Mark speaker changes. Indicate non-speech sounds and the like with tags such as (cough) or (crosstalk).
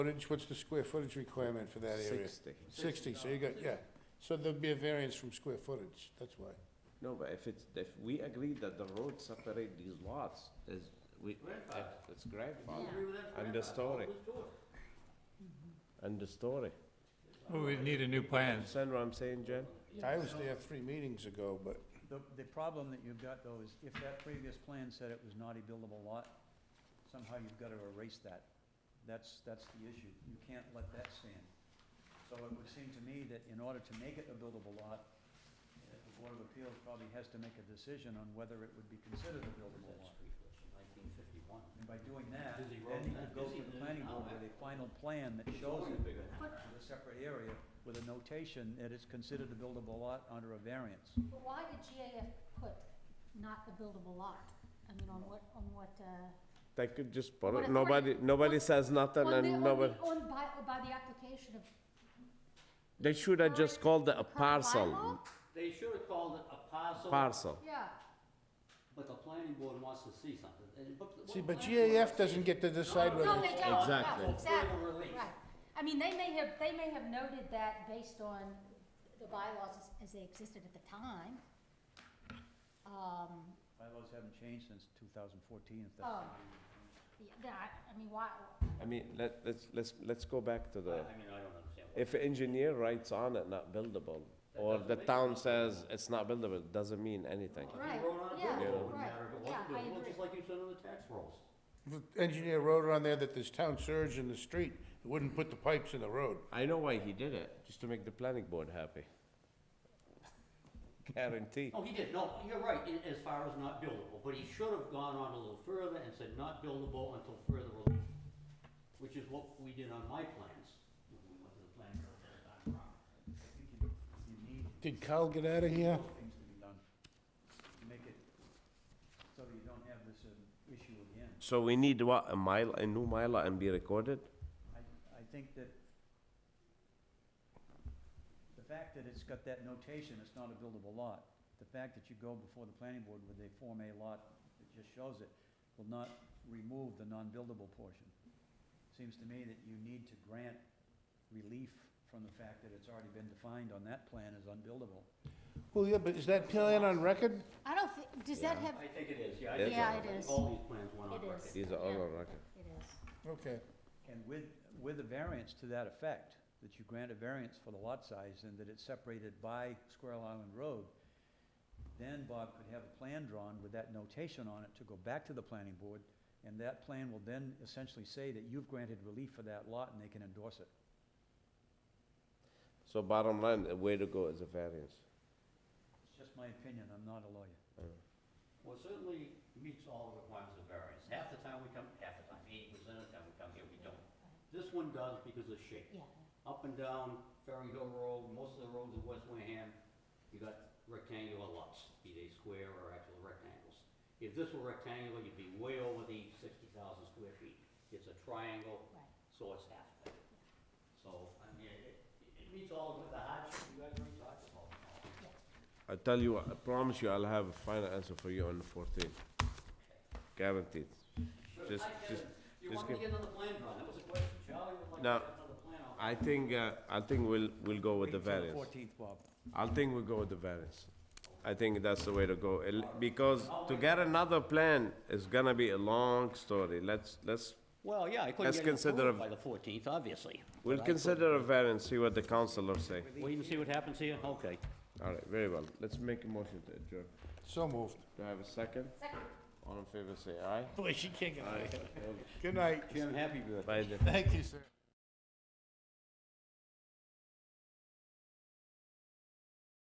Speaker 1: Footage, what's the square footage requirement for that area?
Speaker 2: 60.
Speaker 1: Sixty, so you got, yeah, so there'll be a variance from square footage, that's why.
Speaker 2: No, but if it's, if we agree that the roads separate these lots, is, we, it's grandfather. And the story. And the story.
Speaker 3: Well, we need a new plan.
Speaker 2: Understand what I'm saying, Jen?
Speaker 1: I was there three meetings ago, but
Speaker 4: The, the problem that you've got though is if that previous plan said it was not a buildable lot, somehow you've gotta erase that. That's, that's the issue. You can't let that stand. So it would seem to me that in order to make it a buildable lot, uh, the Board of Appeals probably has to make a decision on whether it would be considered a buildable lot. And by doing that, then you could go to the planning board with a final plan that shows it with a separate area with a notation that it's considered a buildable lot under a variance.
Speaker 5: But why did GAF put not a buildable lot? I mean, on what, on what, uh?
Speaker 2: They could just put
Speaker 5: What
Speaker 2: it,
Speaker 5: if-
Speaker 2: nobody, nobody
Speaker 5: what-
Speaker 2: says nothing
Speaker 5: on the- on
Speaker 2: and
Speaker 5: the-
Speaker 2: nobody,
Speaker 5: On, by, by the application of
Speaker 2: they should have just called
Speaker 5: current-
Speaker 2: it a
Speaker 5: current
Speaker 2: parcel,
Speaker 5: bylaw?
Speaker 6: They should have called it a parcel.
Speaker 2: parcel.
Speaker 5: Yeah,
Speaker 6: But the planning board wants to see something. And but what
Speaker 1: See,
Speaker 6: the
Speaker 1: but
Speaker 6: planning board
Speaker 1: GAF doesn't get to decide
Speaker 5: no,
Speaker 1: whether,
Speaker 5: they don't, no,
Speaker 2: Exactly.
Speaker 5: exactly,
Speaker 6: Full relief.
Speaker 5: right. I mean, they may have, they may have noted that based on the bylaws as- as they existed at the time. Um,
Speaker 4: Bylaws haven't changed since 2014, if that's.
Speaker 5: oh, yeah, that- I mean, why,
Speaker 2: I mean, let, let's, let's, let's go back to
Speaker 6: I I
Speaker 2: the,
Speaker 6: mean, I don't understand. what-
Speaker 2: if engineer writes on it, not buildable, or
Speaker 6: doesn't
Speaker 2: the
Speaker 6: make it
Speaker 2: town
Speaker 6: not
Speaker 2: says it's not buildable, doesn't mean anything.
Speaker 6: If you
Speaker 5: Right,
Speaker 6: wrote on a
Speaker 5: yeah,
Speaker 6: bill, it wouldn't
Speaker 5: right,
Speaker 6: matter if it
Speaker 5: yeah,
Speaker 6: wasn't
Speaker 5: I
Speaker 6: buildable,
Speaker 5: agree.
Speaker 6: Just like you said on the tax rolls.
Speaker 1: the engineer wrote on there that there's town surge in the street, it wouldn't put the pipes in the road.
Speaker 2: I know why he did it, just to make the planning board happy. (laughs) Guarantee.
Speaker 6: Oh, he did, no, you're right, in- as far as not buildable, but he should have gone on a little further and said not buildable until further relief, which is what we did on my plans, when we went to the planning board that time around.
Speaker 4: You need
Speaker 1: Did Kyle get out of here?
Speaker 4: things to be done to make it so that you don't have this um, issue again.
Speaker 2: So we need what, a mile, a new mylar and be recorded?
Speaker 4: I, I think that the fact that it's got that notation, it's not a buildable lot, the fact that you go before the planning board with a Form A lot that just shows it will not remove the non-buildable portion. Seems to me that you need to grant relief from the fact that it's already been defined on that plan as unbuildable.
Speaker 1: Well, yeah, but is that plan on record?
Speaker 5: I don't thi, does that have,
Speaker 6: I think it is, yeah.
Speaker 2: It
Speaker 6: I think
Speaker 2: is
Speaker 5: Yeah,
Speaker 6: so.
Speaker 5: it is.
Speaker 6: All these plans went on
Speaker 5: It
Speaker 6: record.
Speaker 5: is.
Speaker 2: These are all on record.
Speaker 5: it is.
Speaker 1: Okay,
Speaker 4: And with, with a variance to that effect, that you grant a variance for the lot size and that it's separated by Squirrel Island Road, then Bob could have a plan drawn with that notation on it to go back to the planning board, and that plan will then essentially say that you've granted relief for that lot and they can endorse it.
Speaker 2: So bottom line, the way to go is a variance.
Speaker 4: It's just my opinion, I'm not a lawyer.
Speaker 6: Well, it certainly meets all the requirements of variance. Half the time we come, half the time, eighty percent of the time we come here, we don't. This one does because of shape.
Speaker 5: Yeah,
Speaker 6: Up and down Ferry Hill Road, most of the roads in West Wareham, you got rectangular lots, be they square or actual rectangles. If this were rectangular, you'd be way over the sixty thousand square feet. It's a triangle,
Speaker 5: right.
Speaker 6: so it's half of it. So, I mean, it, it meets all of the hardship you guys already talked about.
Speaker 2: I tell you, what, I promise you, I'll have a final answer for you on the fourteenth. Guaranteed. Just,
Speaker 6: I get
Speaker 2: just,
Speaker 6: it. You
Speaker 2: just
Speaker 6: want me to
Speaker 2: give-
Speaker 6: get another plan drawn? That was a question. Charlie would like to
Speaker 2: No.
Speaker 6: get another plan out.
Speaker 2: I think, uh, I think we'll, we'll go with the variance.
Speaker 4: Fourteenth, Bob.
Speaker 2: I think we'll go with the variance. I think that's the way to go, El- because to get another plan is gonna be a long story. Let's, let's,
Speaker 6: Well, yeah, I couldn't
Speaker 2: Let's
Speaker 6: get it
Speaker 2: consider
Speaker 6: approved
Speaker 2: a-
Speaker 6: by the fourteenth, obviously.
Speaker 2: we'll consider a variance, see what the councilors say.
Speaker 6: Wait and see what happens here, okay.
Speaker 2: All right, very well. Let's make a motion to adjourn.
Speaker 1: so moved.
Speaker 2: Do I have a second?
Speaker 5: Second.
Speaker 2: All in favor, say aye.
Speaker 1: Good night.
Speaker 6: Jim, happy birthday.
Speaker 2: Bye then.
Speaker 1: Thank you, sir.